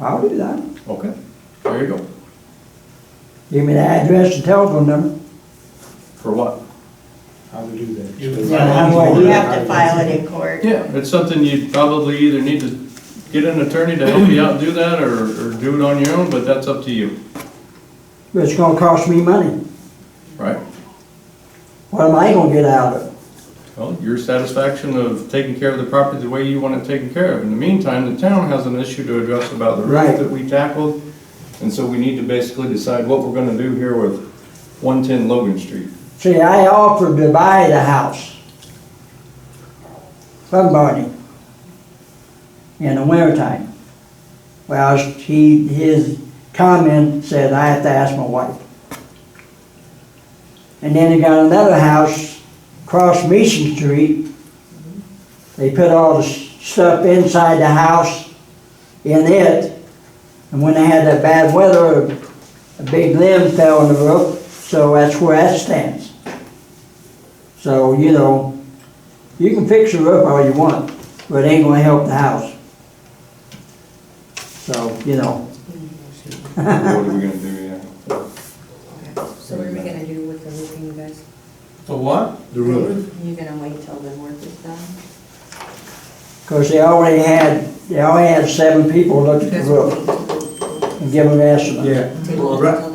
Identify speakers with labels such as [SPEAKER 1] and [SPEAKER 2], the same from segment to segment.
[SPEAKER 1] I'll do that.
[SPEAKER 2] Okay, there you go.
[SPEAKER 1] Give me the address and telephone number.
[SPEAKER 2] For what?
[SPEAKER 3] How we do that?
[SPEAKER 4] You would-
[SPEAKER 1] How do I do
[SPEAKER 5] You
[SPEAKER 1] that?
[SPEAKER 5] have to file it in court.
[SPEAKER 2] Yeah, it's something you probably either need to get an attorney to help you out do that, or, or do it on your own, but that's up to you,
[SPEAKER 1] It's gonna cost me money.
[SPEAKER 2] right?
[SPEAKER 1] What am I gonna get out of it?
[SPEAKER 2] Well, your satisfaction of taking care of the property the way you want it taken care of. In the meantime, the town has an issue to address about the
[SPEAKER 1] Right.
[SPEAKER 2] roof that we tackled, and so we need to basically decide what we're gonna do here with one-ten Logan Street.
[SPEAKER 1] See, I offered to buy the house. Somebody. In the wintertime. Well, he, his comment said, I have to ask my wife. And then they got another house across Mission Street. They put all the stuff inside the house in it. And when they had that bad weather, a big limb fell on the roof, so that's where that stands. So, you know, you can fix the roof all you want, but it ain't gonna help the house. So, you know,
[SPEAKER 2] What are we gonna do, yeah?
[SPEAKER 6] So what are we gonna do with the roofing, you guys?
[SPEAKER 4] The what?
[SPEAKER 3] The roof.
[SPEAKER 6] You gonna wait till the work is done?
[SPEAKER 1] cause they already had, they already had seven people look at the roof and give them an estimate.
[SPEAKER 3] Yeah,
[SPEAKER 6] Take it
[SPEAKER 4] Well,
[SPEAKER 6] until
[SPEAKER 4] right-
[SPEAKER 6] then?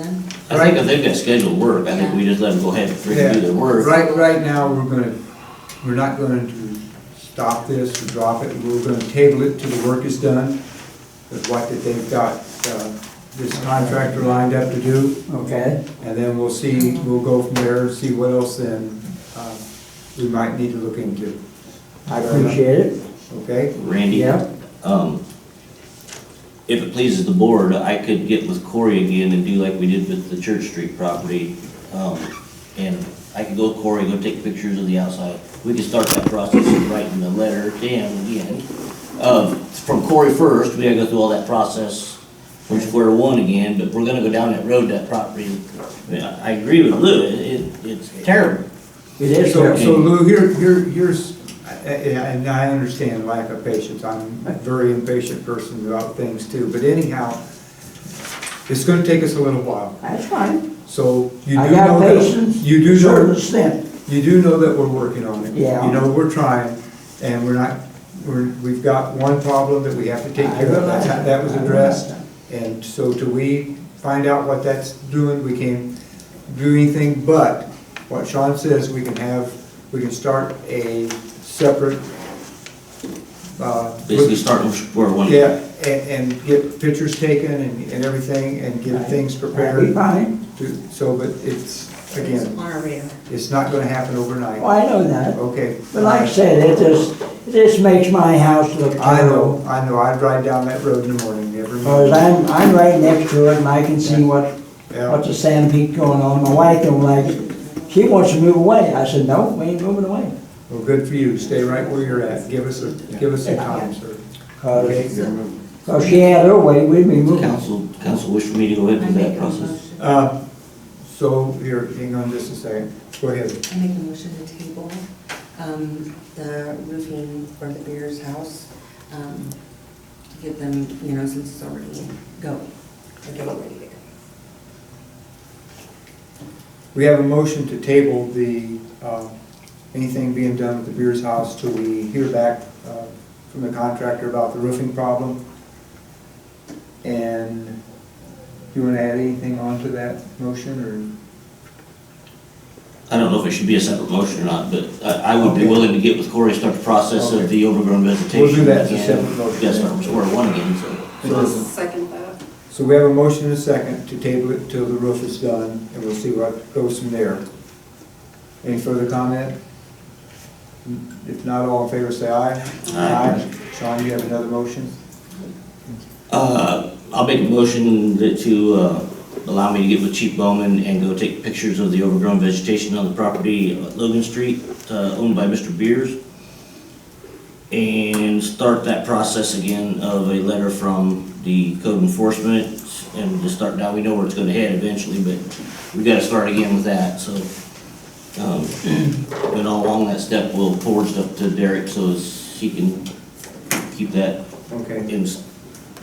[SPEAKER 7] I think if they've got scheduled work, I think we just let them go ahead and freaking do their work.
[SPEAKER 3] right, right now, we're gonna, we're not going to stop this or drop it, we're gonna table it till the work is done, with what that they've got, uh, this contractor lined up to do,
[SPEAKER 1] Okay,
[SPEAKER 3] and then we'll see, we'll go from there, and see what else then, uh, we might need to look into,
[SPEAKER 1] I appreciate it,
[SPEAKER 3] okay?
[SPEAKER 7] Randy,
[SPEAKER 1] yeah,
[SPEAKER 7] um, if it pleases the board, I could get with Corey again and do like we did with the Church Street property. Um, and I could go with Corey, go take pictures of the outside. We could start that process of writing the letter to him again. Uh, from Corey first, we gotta go through all that process from square one again, but we're gonna go down that road, that property. I mean, I I agree with Lou, it, it- it's terrible.
[SPEAKER 1] it is
[SPEAKER 3] So,
[SPEAKER 1] helping.
[SPEAKER 3] so Lou, here, here, here's, and I understand lack of patience, I'm a very impatient person about things too, but anyhow, it's gonna take us a little while,
[SPEAKER 1] That's fine,
[SPEAKER 3] so you do
[SPEAKER 1] I got
[SPEAKER 3] know that,
[SPEAKER 1] patience,
[SPEAKER 3] you
[SPEAKER 1] to a
[SPEAKER 3] do
[SPEAKER 1] certain
[SPEAKER 3] know,
[SPEAKER 1] extent.
[SPEAKER 3] you do know that we're working on it.
[SPEAKER 1] Yeah.
[SPEAKER 3] You know, we're trying, and we're not, we're, we've got one problem that we have to take
[SPEAKER 1] I
[SPEAKER 3] care of,
[SPEAKER 1] realize
[SPEAKER 3] that's, how- that was
[SPEAKER 1] that. I
[SPEAKER 3] addressed.
[SPEAKER 1] realize
[SPEAKER 3] And so till we find out what that's doing, we can't do anything but what Sean says, we can have, we can start a separate, uh.
[SPEAKER 7] Basically starting from square one.
[SPEAKER 3] Yeah, and, and get pictures taken and, and everything, and get things
[SPEAKER 1] That'd be
[SPEAKER 3] prepared
[SPEAKER 1] fine,
[SPEAKER 3] to, so, but it's,
[SPEAKER 6] It's
[SPEAKER 3] again,
[SPEAKER 6] on our radar.
[SPEAKER 3] it's not gonna happen overnight.
[SPEAKER 1] well, Oh, I know that.
[SPEAKER 3] Okay.
[SPEAKER 1] But like I said, it just, it just makes my house look
[SPEAKER 3] I
[SPEAKER 1] terrible.
[SPEAKER 3] know, I know, I drive down that road in the morning every
[SPEAKER 1] Because
[SPEAKER 3] morning.
[SPEAKER 1] I'm, I'm right next to it and I can see what,
[SPEAKER 3] Yeah,
[SPEAKER 1] what's the sand peak going on. My wife don't like it. She wants to move away. I said, no, we ain't moving away.
[SPEAKER 3] well, good for you, stay right where you're at, give us a, give us some time, sir.
[SPEAKER 1] Because if she had her way, we'd be moving.
[SPEAKER 7] Council, council wish for me to go ahead
[SPEAKER 6] I
[SPEAKER 7] and do
[SPEAKER 6] make
[SPEAKER 7] that
[SPEAKER 6] a
[SPEAKER 7] process?
[SPEAKER 6] motion,
[SPEAKER 3] Uh, so, here, hang on just a second, go ahead.
[SPEAKER 6] I make a motion to table, um, the roofing for the Beers House, um, to give them, you know, since it's already going, to get it ready to go.
[SPEAKER 3] We have a motion to table the, uh, anything being done with the Beers House till we hear back uh, from the contractor about the roofing problem. And you wanna add anything onto that motion, or?
[SPEAKER 7] I don't know if it should be a separate motion or not, but I, I would be
[SPEAKER 3] Okay.
[SPEAKER 7] willing to get with Corey, start the process
[SPEAKER 3] Okay.
[SPEAKER 7] of the overgrown vegetation.
[SPEAKER 3] We'll do that as a
[SPEAKER 7] again.
[SPEAKER 3] separate motion.
[SPEAKER 7] Yes, start from square one again, so.
[SPEAKER 8] Second that.
[SPEAKER 3] So we have a motion and a second to table it till the roof is done, and we'll see what goes from there. Any further comment? If not, all in favor, say aye.
[SPEAKER 7] Aye.
[SPEAKER 3] Sean, you have another motion?
[SPEAKER 7] Uh, I'll make a motion that to, uh, allow me to get with Chief Bowman and go take pictures of the overgrown vegetation on the property at Logan Street, uh, owned by Mr. Beers. And start that process again of a letter from the code enforcement and to start, now we know where it's gonna head eventually, but we gotta start again with that, so. Um, but all along that step, we'll forward stuff to Derek so as he can keep that
[SPEAKER 3] Okay,
[SPEAKER 7] in s-